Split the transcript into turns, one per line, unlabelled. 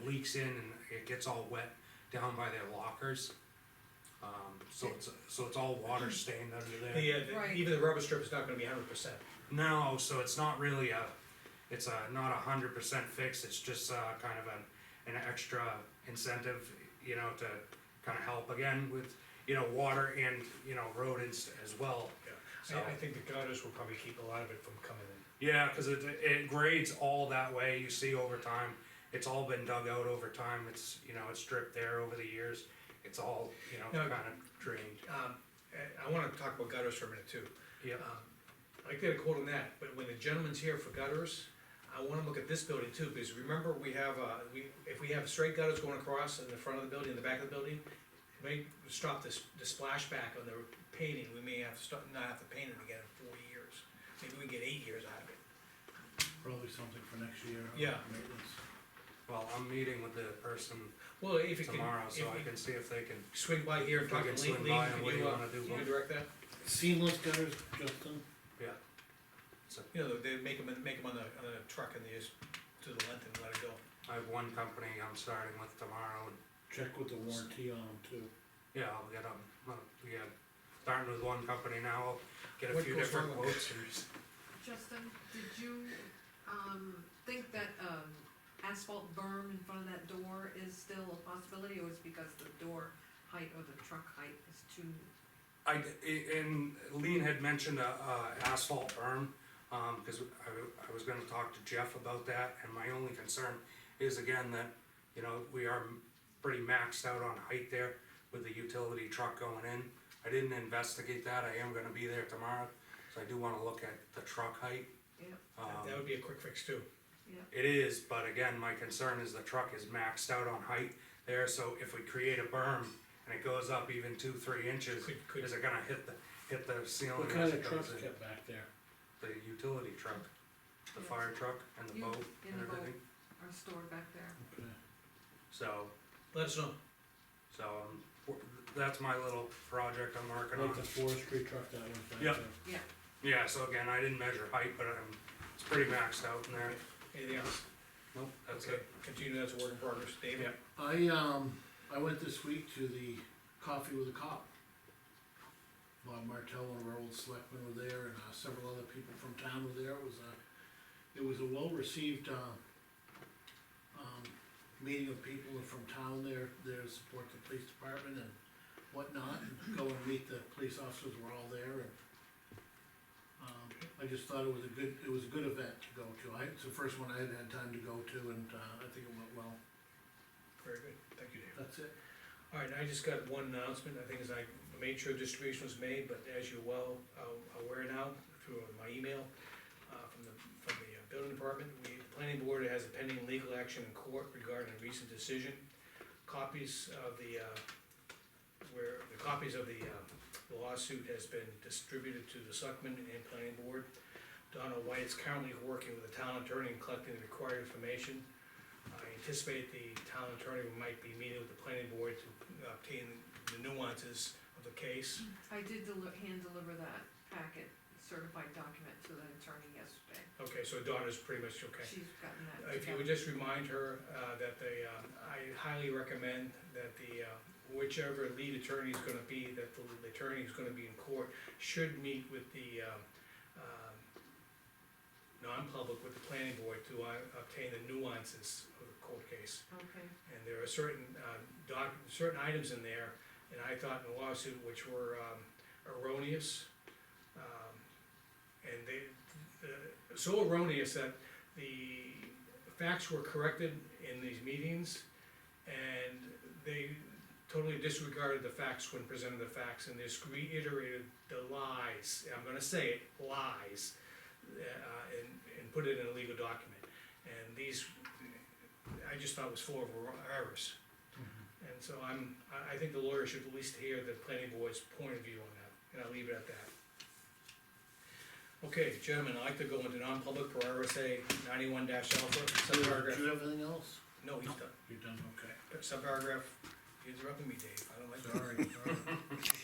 leaks in and it gets all wet down by their lockers. Um, so it's, so it's all water stained under there.
The, uh, the-
Right.
even the rubber strip is not gonna be hundred percent.
No, so it's not really a, it's a, not a hundred percent fix, it's just, uh, kind of an, an extra incentive, you know, to kind of help again with, you know, water and, you know, rodents as well.
I, I
So-
think the gutters will probably keep a lot of it from coming in.
Yeah, cause it, it grades all that way, you see over time, it's all been dug out over time, it's, you know, it's dripped there over the years, it's all, you know,
No.
kind of drained,
Um, I, I wanna talk about gutters for a minute too.
yeah.
Um, I get a quote on that, but when the gentleman's here for gutters, I wanna look at this building too, because remember, we have, uh, we, if we have straight gutters going across in the front of the building, in the back of the building, it may stop this, the splashback on the painting, we may have to stop, not have to paint it again in four years. Maybe we get eight years out of it.
Probably something for next year. uh,
Yeah.
maintenance.
Well, I'm meeting with the person
Well, if it can,
tomorrow,
if
so I
we
can see if they can,
swing by here and
If I
talk
can
to Lee,
swing
Lee,
by and
can
what do
you,
you
uh,
wanna do,
can you
Bob?
direct that?
Seamless gutters, Justin,
You know, they make them, make 'em on the, on the truck and they just do the length and let it go.
I have one company I'm starting with tomorrow, and,
check with the warranty on them too.
yeah, I'll get them, uh, yeah, starting with one company now, I'll get a
What
few
goes
different
wrong with
quotes. and just-
Justin, did you, um, think that, um, asphalt berm in front of that door is still a possibility, or is it because the door height or the truck height is too?
I, i- and Lean had mentioned a, a asphalt berm, um, cause I, w- I was gonna talk to Jeff about that, and my only concern is again that, you know, we are m- pretty maxed out on height there with the utility truck going in. I didn't investigate that, I am gonna be there tomorrow, so I do wanna look at the truck height.
Yeah.
That- That
um,
would be a quick fix too.
It is, but again, my concern is the truck is maxed out on height there, so if we create a berm and it goes up even two, three inches,
Could- could-
is it gonna hit the, hit the ceiling?
What
as
kind
it
of trucks
goes in?
kept back there?
The utility truck, the
Yeah.
fire truck and the
You-
boat
in
and
the boat.
everything,
Are stored back there?
Okay.
so,
Let us know.
so, um, w- that's my little project I'm working on.
Like the forestry truck that went back
Yeah.
there.
Yeah,
Yeah, so again, I didn't measure height, but I'm, it's pretty maxed out in there,
Anything else?
nope, that's
Okay,
it.
Continue, that's a work in progress. Dave?
Yeah.
I, um, I went this week to the Coffee with a Cop. Bob Martell, one of our old selectmen were there, and uh, several other people from town were there, it was a, it was a well-received, uh, um, meeting of people from town there, there to support the police department and whatnot, and go and meet the police officers were all there, and um, I just thought it was a good, it was a good event to go to, I, it's the first one I had had time to go to, and, uh, I think it went well,
Very good, thank you, Dave.
that's it.
All right, I just got one announcement, I think is I made sure distribution was made, but as you're well uh, aware now, through my email, uh, from the, from the uh, building department, we, the planning board has a pending legal action in court regarding a recent decision. Copies of the, uh, where, the copies of the uh, lawsuit has been distributed to the selectmen and planning board. Donna White is currently working with the town attorney and collecting the required information. I anticipate the town attorney might be meeting with the planning board to uh, obtain the nuances of the case.
I did deli- hand deliver that packet, certified document to the attorney yesterday,
Okay, so Donna's pretty much okay. Uh,
she's gotten that.
If you would just remind her uh, that they, um, I highly recommend that the, uh, whichever lead attorney is gonna be, that the attorney is gonna be in court, should meet with the um, um, non-public, with the planning board to uh, obtain the nuances of the court case.
Okay,
And there are certain, uh, doc, certain items in there, and I thought in the lawsuit, which were, um, erroneous. um, And they, uh, so erroneous that the facts were corrected in these meetings, and they totally disregarded the facts when presented the facts, and just reiterated the lies, I'm gonna say it, lies, uh, and, and put it in a legal document. And these I just thought it was full of errors. And so I'm, I, I think the lawyer should at least hear the planning board's point of view on that, and I'll leave it at that. Okay, gentlemen, I'd like to go into non-public per RSA ninety-one dash alpha,
Do you
subparagraph,
have anything else?
no, he's done,
You're done, okay.
subparagraph, you interrupted me, Dave, I don't like that.
Sorry, sorry.